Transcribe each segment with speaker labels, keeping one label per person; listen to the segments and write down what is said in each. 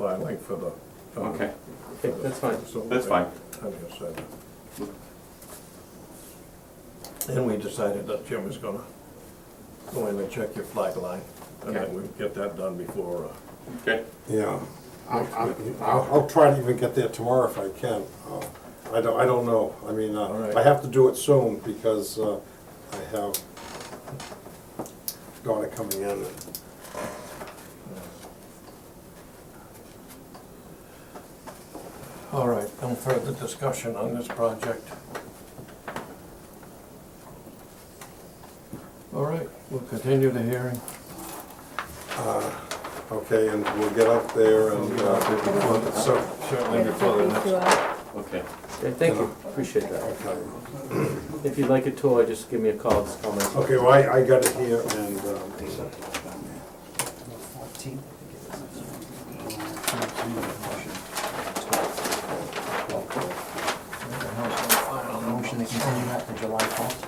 Speaker 1: filing for the. for the-
Speaker 2: Okay,
Speaker 1: for the-
Speaker 2: that's fine.
Speaker 1: so
Speaker 2: That's fine.
Speaker 1: I guess that- And we decided that Jim was gonna go in and check your flag line, and
Speaker 2: Okay.
Speaker 1: then we get that done before, uh,
Speaker 2: okay,
Speaker 3: Yeah, I'll, I'll, I'll try to even get there tomorrow if I can. Uh, I don't, I don't know, I mean,
Speaker 1: All
Speaker 3: uh,
Speaker 1: right.
Speaker 3: I have to do it soon because uh, I have daughter coming in.
Speaker 1: all right, no further discussion on this project. All right, we'll continue the hearing.
Speaker 3: Okay, and we'll get up there and, uh,
Speaker 1: So,
Speaker 3: so,
Speaker 1: certainly
Speaker 4: Yeah,
Speaker 1: before the
Speaker 4: these two
Speaker 1: next.
Speaker 4: out.
Speaker 2: okay.
Speaker 5: Okay, thank you, appreciate that.
Speaker 3: okay.
Speaker 5: If you'd like a tour, just give me a call, just call me.
Speaker 3: Okay, well, I, I got it here and, um,
Speaker 6: Motion to continue that to July twelfth?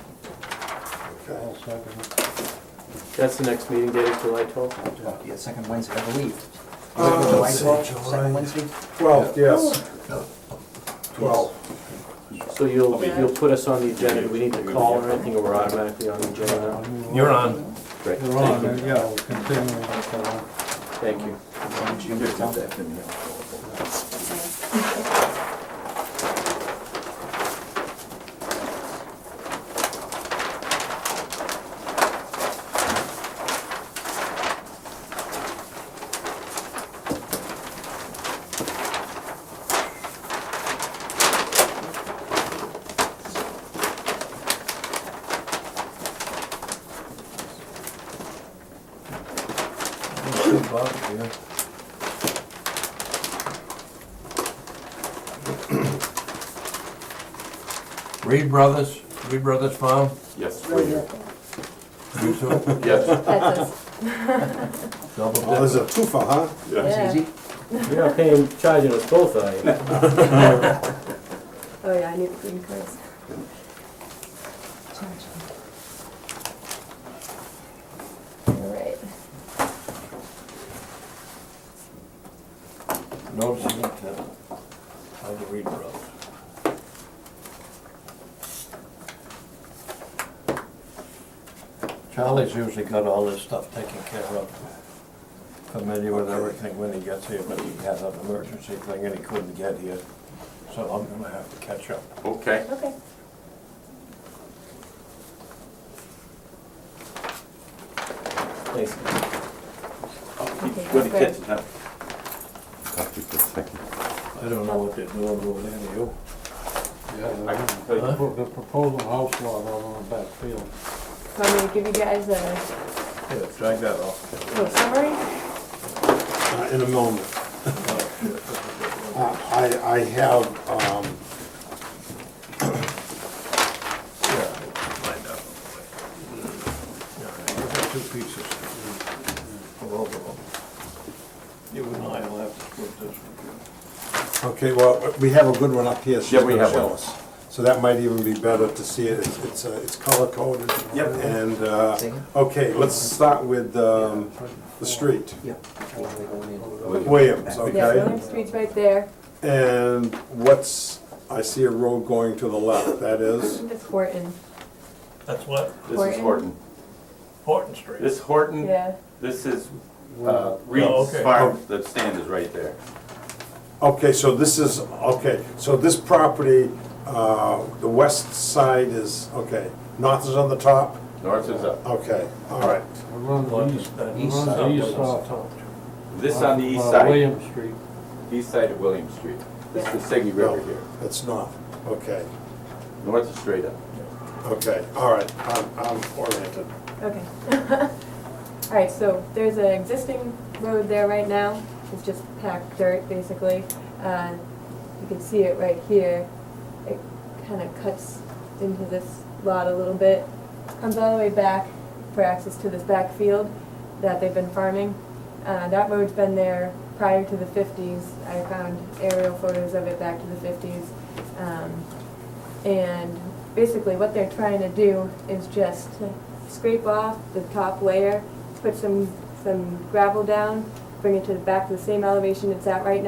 Speaker 3: okay.
Speaker 5: That's the next meeting date, is July twelfth?
Speaker 6: Yeah, second Wednesday, I believe.
Speaker 3: Uh,
Speaker 6: July
Speaker 3: let's see,
Speaker 6: 12th, Second Wednesday?
Speaker 3: Twelve, yes. Twelve.
Speaker 5: So you'll, you'll put us on the agenda, do we need to call or anything, or we're automatically on the agenda now?
Speaker 1: You're on.
Speaker 5: Great,
Speaker 7: You're on, uh, yeah, we'll continue until, uh,
Speaker 5: thank you.
Speaker 6: June 12th.
Speaker 1: Bob, yeah. Reed Brothers, Reed Brothers Farm,
Speaker 2: Yes, for you.
Speaker 1: you two,
Speaker 2: yes,
Speaker 4: That's us.
Speaker 1: double
Speaker 3: Well, there's
Speaker 1: dip.
Speaker 3: a twofer, huh?
Speaker 2: yes.
Speaker 4: Yeah.
Speaker 6: Easy?
Speaker 5: You're not paying, charging us both, are you?
Speaker 4: Oh, yeah, I need the green cards. All right.
Speaker 1: Notice of intent by the Reed Brothers. Charlie's usually got all this stuff taken care of. Familiar with everything when he gets here, but he had an emergency thing and he couldn't get here. So I'm gonna have to catch up.
Speaker 2: Okay,
Speaker 4: Okay.
Speaker 5: Thanks.
Speaker 4: Okay,
Speaker 2: good
Speaker 4: that's
Speaker 2: catch, huh? Copy for a second.
Speaker 1: I don't know what they're doing over there, do you?
Speaker 2: I can tell you.
Speaker 1: Huh?
Speaker 7: The proposal house lot out on the back field.
Speaker 4: So I'm gonna give you guys a
Speaker 1: Yeah, drag that off.
Speaker 4: little summary.
Speaker 3: Uh, In a moment. Uh, I, I have, um,
Speaker 1: Find out. Yeah, I've got two pieces. Of all of them. You and I will have to split this one.
Speaker 3: Okay, well, we have a good one up here. she's
Speaker 2: Yeah, we
Speaker 3: gonna
Speaker 2: have
Speaker 3: show
Speaker 2: one.
Speaker 3: us. So that might even be better to see it, It's- it's, uh, it's color coded.
Speaker 2: Yep.
Speaker 3: And, uh,
Speaker 6: Second?
Speaker 3: okay, let's start with um, the street,
Speaker 6: Yeah. July
Speaker 3: Williams,
Speaker 4: Yeah,
Speaker 3: okay?
Speaker 4: William Street's right there.
Speaker 3: And what's, I see a road going to the left, that is?
Speaker 4: It's Horton.
Speaker 1: That's what?
Speaker 2: This is
Speaker 4: Horton.
Speaker 2: Horton.
Speaker 1: Horton Street.
Speaker 2: This Horton,
Speaker 4: Yeah.
Speaker 2: this is uh, Reed's
Speaker 1: okay.
Speaker 2: farm, the stand is right there.
Speaker 3: Okay, so this is, okay, so this property, uh, the west side is, okay, north is on the top?
Speaker 2: North is up.
Speaker 3: Okay, all right.
Speaker 7: It runs east, it
Speaker 1: East
Speaker 7: runs
Speaker 6: side.
Speaker 7: east off.
Speaker 2: This on the east
Speaker 7: uh,
Speaker 2: side,
Speaker 7: William Street.
Speaker 2: east side of William Street. This is the Segway River here.
Speaker 3: That's north, okay,
Speaker 2: North is straight up.
Speaker 3: okay, all right, I'm- I'm oriented.
Speaker 4: Okay. All right, so there's an existing road there right now. It's just packed dirt, basically. Uh, You can see it right here. It kind of cuts into this lot a little bit, comes all the way back for access to this back field that they've been farming. Uh, That road's been there prior to the 50s. I found aerial photos of it back to the 50s. Um, and basically what they're trying to do is just scrape off the top layer, put some, some gravel down, bring it to the back to the same elevation it's at right now.